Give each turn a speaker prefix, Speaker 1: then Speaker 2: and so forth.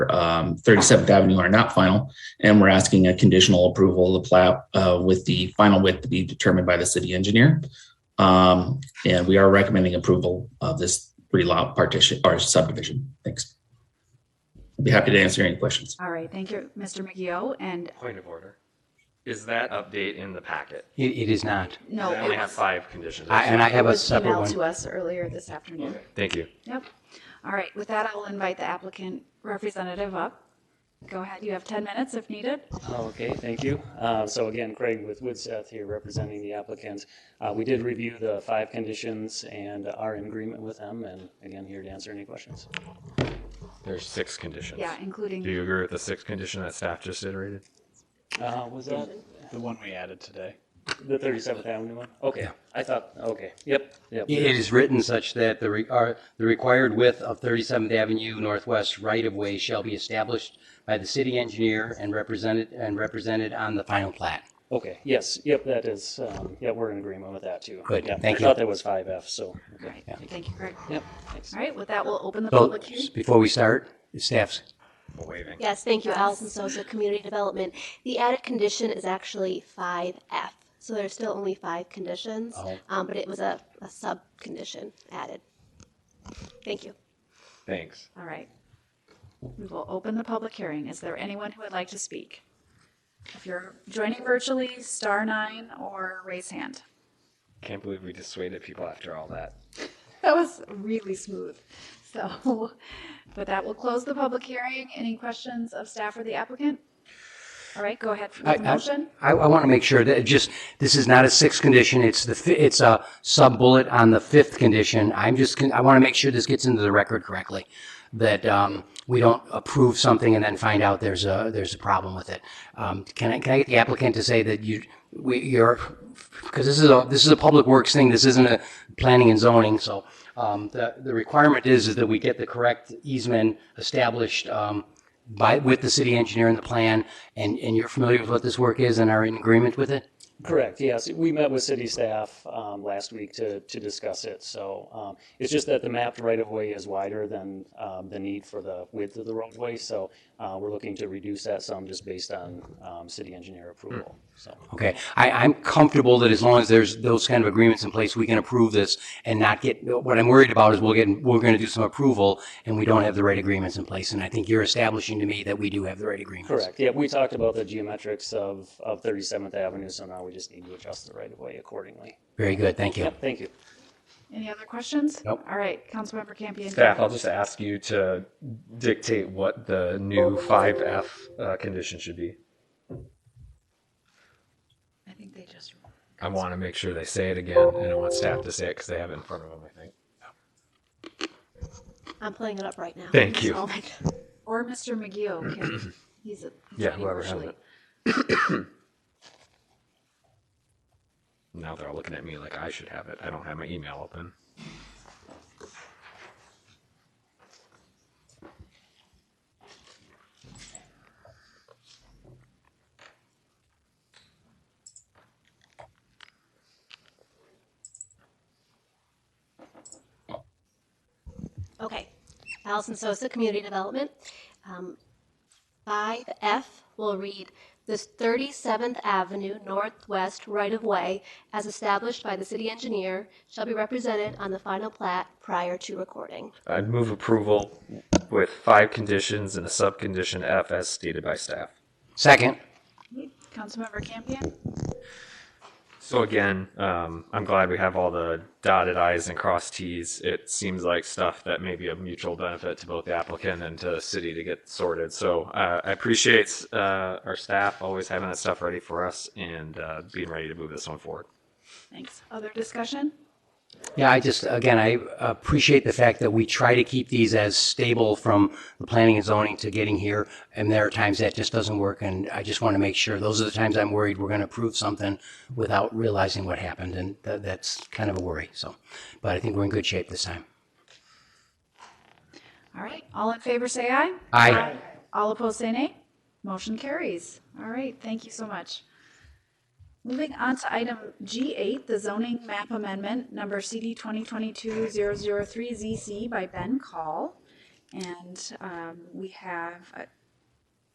Speaker 1: um, 37th Avenue are not final, and we're asking a conditional approval of the plat uh, with the final width to be determined by the city engineer. Um, And we are recommending approval of this three lot partition or subdivision. Thanks. I'd be happy to answer any questions.
Speaker 2: All right, thank you, Mr. McGee. And
Speaker 3: Point of order. Is that update in the packet?
Speaker 4: It, it is not.
Speaker 2: no,
Speaker 3: I only
Speaker 2: it
Speaker 3: have
Speaker 2: was,
Speaker 3: five conditions.
Speaker 4: I, and I
Speaker 2: it
Speaker 4: have a
Speaker 2: was
Speaker 4: separate
Speaker 2: emailed to
Speaker 4: one.
Speaker 2: us earlier this afternoon.
Speaker 3: Thank you.
Speaker 2: Yep. All right, with that, I'll invite the applicant representative up. Go ahead, you have 10 minutes if needed.
Speaker 5: Oh, Okay, thank you. Uh, So again, Craig with Woodseth here representing the applicant. Uh, We did review the five conditions and are in agreement with them, and again, here to answer any questions.
Speaker 3: There's six conditions.
Speaker 2: Yeah,
Speaker 3: Do
Speaker 2: including,
Speaker 3: you agree with the sixth condition that staff just iterated?
Speaker 5: Uh, Was that
Speaker 6: The one we added today.
Speaker 5: the 37th Avenue one? Okay, I thought, okay, yep, yep.
Speaker 4: It is written such that the, re, are, the required width of 37th Avenue Northwest right-of-way shall be established by the city engineer and represented, and represented on the final plat.
Speaker 5: Okay, yes, yep, that is, um, yeah, we're in agreement with that too.
Speaker 4: Good,
Speaker 5: Yeah,
Speaker 4: thank
Speaker 5: I
Speaker 4: you.
Speaker 5: thought that was 5F, so,
Speaker 2: all
Speaker 5: okay,
Speaker 2: right, thank you, Greg.
Speaker 5: yep, thanks.
Speaker 2: All right, with that, we'll open the
Speaker 4: So,
Speaker 2: public hearing.
Speaker 4: before we start, staff's
Speaker 3: I'm Waving.
Speaker 7: Yes, thank you, Allison Sosa, Community Development. The added condition is actually five F, so there's still only five conditions,
Speaker 4: Oh.
Speaker 7: um, but it was a, a sub-condition added. Thank you.
Speaker 3: Thanks.
Speaker 2: All right. We will open the public hearing. Is there anyone who would like to speak? If you're joining virtually, star nine or raise hand.
Speaker 3: Can't believe we dissuaded people after all that.
Speaker 2: That was really smooth. So, but that will close the public hearing. Any questions of staff or the applicant? All right, go ahead for
Speaker 4: I-
Speaker 2: the motion.
Speaker 4: I, I want to make sure that it just, this is not a sixth condition, it's the, fi- it's a sub-bullet on the fifth condition. I'm just, con- I want to make sure this gets into the record correctly, that um, we don't approve something and then find out there's a, there's a problem with it. Um, Can I, can I get the applicant to say that you, we, you're, because this is a, this is a public works thing, this isn't a planning and zoning, so um, the, the requirement is, is that we get the correct easement established um, by, with the city engineer and the plan, and, and you're familiar with what this work is and are in agreement with it?
Speaker 5: Correct, yes. We met with city staff um, last week to, to discuss it. So um, it's just that the mapped right-of-way is wider than um, the need for the width of the roadway. So uh, we're looking to reduce that some just based on um, city engineer approval. So,
Speaker 4: Okay, I, I'm comfortable that as long as there's those kind of agreements in place, we can approve this and not get, what I'm worried about is we'll get, we're gonna do some approval and we don't have the right agreements in place, and I think you're establishing to me that we do have the right agreements.
Speaker 5: correct, yeah, we talked about the geometrics of, of 37th Avenue, so now we just need to adjust the right-of-way accordingly.
Speaker 4: Very good, thank you.
Speaker 5: Yep, thank you.
Speaker 2: Any other questions?
Speaker 4: Nope.
Speaker 2: All right, Councilmember Campion.
Speaker 3: Staff, I'll just ask you to dictate what the new five F uh, condition should be.
Speaker 2: I think they just,
Speaker 3: I want to make sure they say it again, and I want staff to say it because they have it in front of them, I think.
Speaker 7: I'm pulling it up right now.
Speaker 3: Thank you.
Speaker 7: Oh my God.
Speaker 2: or Mr. McGee can, he's a. he's
Speaker 3: Yeah,
Speaker 2: joining
Speaker 3: whoever has
Speaker 2: virtually.
Speaker 3: it. Now they're all looking at me like I should have it. I don't have my email open.
Speaker 7: Okay. Allison Sosa, Community Development. Um, Five F will read, "This 37th Avenue Northwest right-of-way, as established by the city engineer, shall be represented on the final plat prior to recording."
Speaker 3: I'd move approval with five conditions and a subcondition F as stated by staff.
Speaker 4: Second,
Speaker 2: Councilmember Campion,
Speaker 3: So again, um, I'm glad we have all the dotted i's and crossed t's. It seems like stuff that may be of mutual benefit to both the applicant and to the city to get sorted. So uh, I appreciate uh, our staff always having that stuff ready for us and uh, being ready to move this one forward.
Speaker 2: thanks. Other discussion?
Speaker 4: Yeah, I just, again, I appreciate the fact that we try to keep these as stable from the planning and zoning to getting here. And there are times that just doesn't work. And I just want to make sure, those are the times I'm worried we're going to approve something without realizing what happened. And tha- that's kind of a worry. So, but I think we're in good shape this time.
Speaker 2: All right, all in favor, say aye.
Speaker 4: Aye.
Speaker 2: All opposed, say nay. Motion carries. All right, thank you so much. Moving on to item G8, the zoning map amendment, number CD 2022-003ZC by Ben Call. And um, we have a